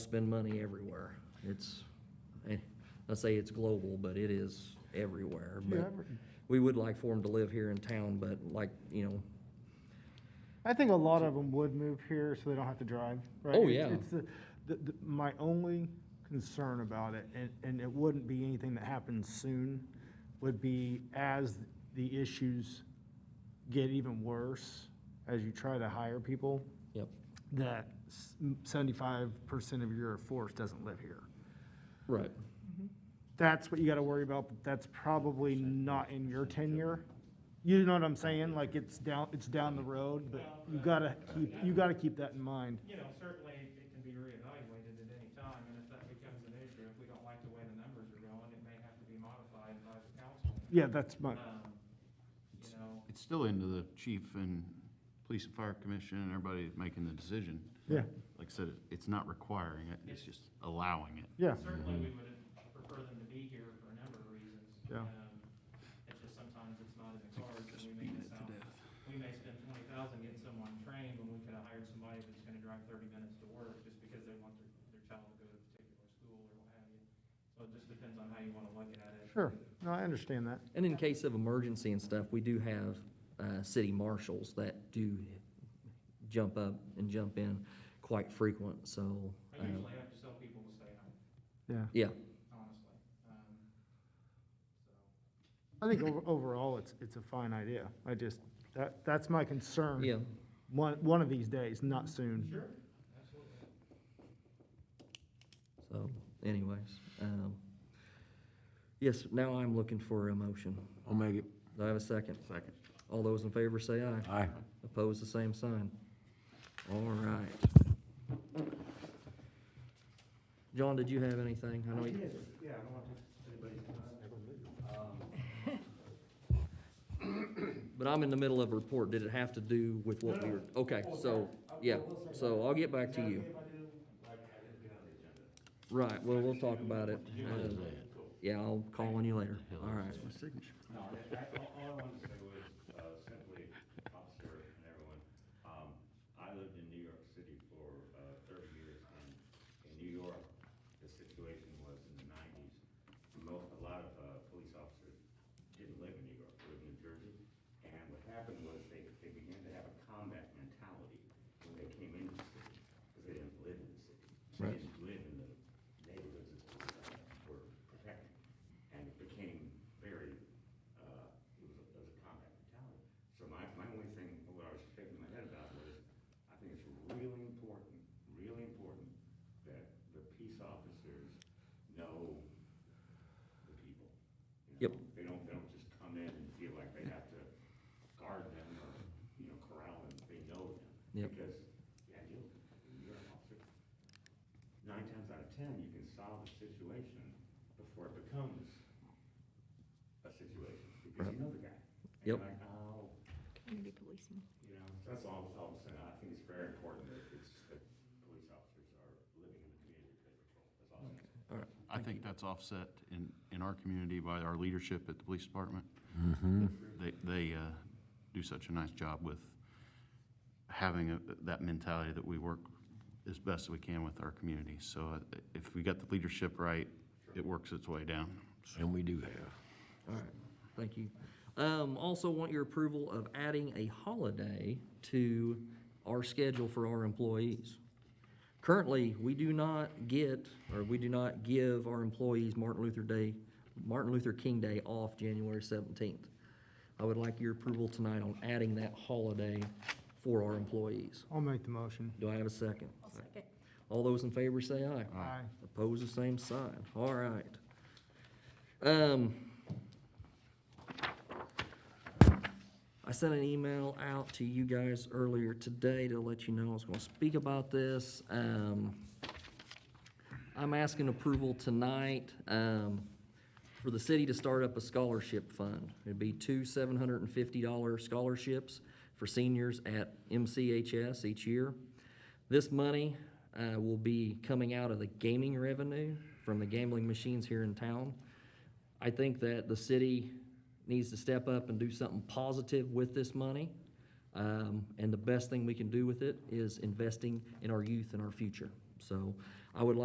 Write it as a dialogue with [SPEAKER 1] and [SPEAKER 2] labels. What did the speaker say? [SPEAKER 1] spend money everywhere. It's, eh, I say it's global, but it is everywhere. But
[SPEAKER 2] Yeah, every-
[SPEAKER 1] We would like for them to live here in town, but like, you know,
[SPEAKER 2] I think a lot of them would move here so they don't have to drive, right?
[SPEAKER 1] Oh,
[SPEAKER 2] It's-
[SPEAKER 1] yeah.
[SPEAKER 2] It's the, the, the, my only concern about it, and, and it wouldn't be anything that happens soon, would be as the issues get even worse, as you try to hire people,
[SPEAKER 1] yep,
[SPEAKER 2] that seventy-five percent of your force doesn't live here.
[SPEAKER 1] right.
[SPEAKER 2] that's what you gotta worry about, but that's probably not in your tenure. You know what I'm saying, like, it's down, it's down the road, but you gotta keep, you gotta keep that in mind.
[SPEAKER 3] You know, certainly it can be reevaluated at any time, and if that becomes an issue, if we don't like the way the numbers are going, it may have to be modified by the council.
[SPEAKER 2] Yeah, that's my,
[SPEAKER 3] Um, You know,
[SPEAKER 4] It's still into the chief and police and fire commission and everybody making the decision.
[SPEAKER 2] yeah,
[SPEAKER 4] Like I said, it's not requiring it, it's just allowing it.
[SPEAKER 2] yeah,
[SPEAKER 3] certainly we would prefer them to be here for a number of reasons.
[SPEAKER 2] Yeah.
[SPEAKER 3] Um, It's just sometimes it's not in the cards, and we may miss out. We may spend twenty thousand getting someone trained, when we could have hired somebody that's gonna drive thirty minutes to work, just because they want their, their child to go to a particular school or what have you. So it just depends on how you wanna look at it.
[SPEAKER 2] sure, no, I understand that,
[SPEAKER 1] And in case of emergency and stuff, we do have, uh, city marshals that do jump up and jump in quite frequent, so,
[SPEAKER 3] I
[SPEAKER 1] uh,
[SPEAKER 3] usually have to tell people to stay home,
[SPEAKER 2] yeah.
[SPEAKER 1] yeah,
[SPEAKER 3] honestly. Um, so,
[SPEAKER 2] I think over- overall, it's, it's a fine idea, I just, that, that's my concern.
[SPEAKER 1] uh, yeah.
[SPEAKER 2] One, one of these days, not soon.
[SPEAKER 3] Sure, absolutely.
[SPEAKER 1] So anyways, um, yes, now I'm looking for a motion.
[SPEAKER 4] I'll make it.
[SPEAKER 1] Do I have a second?
[SPEAKER 4] Second.
[SPEAKER 1] All those in favor say aye.
[SPEAKER 4] Aye.
[SPEAKER 1] Opposed, the same sign. All right. John, did you have anything? I know you,
[SPEAKER 3] Yeah, I don't want anybody's
[SPEAKER 1] but I'm in the middle of a report. Did it have to do with what we were, okay, so, yeah, so I'll get back to you. Right, well, we'll talk about it. Uh, Yeah, I'll call on you later. All right.
[SPEAKER 4] My signature.
[SPEAKER 5] No, I, I, all all I wanted to say was, uh, simply, officer and everyone, um, I lived in New York City for, uh, thirty years, and in New York, the situation was in the nineties, mo a lot of, uh, police officers didn't live in New York, they lived in New Jersey, and what happened was they, they began to have a combat mentality when they came into the city, because they didn't live in the city. They
[SPEAKER 1] Right.
[SPEAKER 5] didn't live in the neighborhoods that uh, were protected, and it became very, uh, it was, a- it was a combat mentality. So my, my only thing, what I was shaking my head about was, I think it's really important, really important that the peace officers know the people. you
[SPEAKER 1] Yep.
[SPEAKER 5] know? They don't, they don't just come in and feel like they have to guard them or, you know, corral them, they know them.
[SPEAKER 1] Yep.
[SPEAKER 5] Because, yeah, you, you're an officer, nine times out of ten, you can solve a situation before it becomes a situation, because you know the guy. And you're
[SPEAKER 1] Yep.
[SPEAKER 5] Like, oh,
[SPEAKER 6] Community policing.
[SPEAKER 5] you know, that's all, all I'm saying, I think it's very important that it's, that police officers are living in the community that they patrol, that's all I'm
[SPEAKER 4] I
[SPEAKER 5] saying.
[SPEAKER 4] think that's offset in, in our community by our leadership at the police department. They, they uh, do such a nice job with having a- that mentality that we work as best we can with our community. So uh, if we got the leadership right, it works its way down.
[SPEAKER 7] And we do have.
[SPEAKER 1] All right, thank you. Um, also want your approval of adding a holiday to our schedule for our employees. Currently, we do not get, or we do not give our employees Martin Luther Day, Martin Luther King Day off January seventeenth. I would like your approval tonight on adding that holiday for our employees.
[SPEAKER 2] I'll make the motion.
[SPEAKER 1] Do I have a second?
[SPEAKER 6] second.
[SPEAKER 1] All those in favor say aye.
[SPEAKER 2] Aye.
[SPEAKER 1] Oppose the same sign, all right. Um, I sent an email out to you guys earlier today to let you know I was gonna speak about this. Um, I'm asking approval tonight, um, for the city to start up a scholarship fund. It'd be two seven hundred and fifty dollar scholarships for seniors at MCHS each year. This money, uh, will be coming out of the gaming revenue from the gambling machines here in town. I think that the city needs to step up and do something positive with this money. Um, and the best thing we can do with it is investing in our youth and our future. So I would like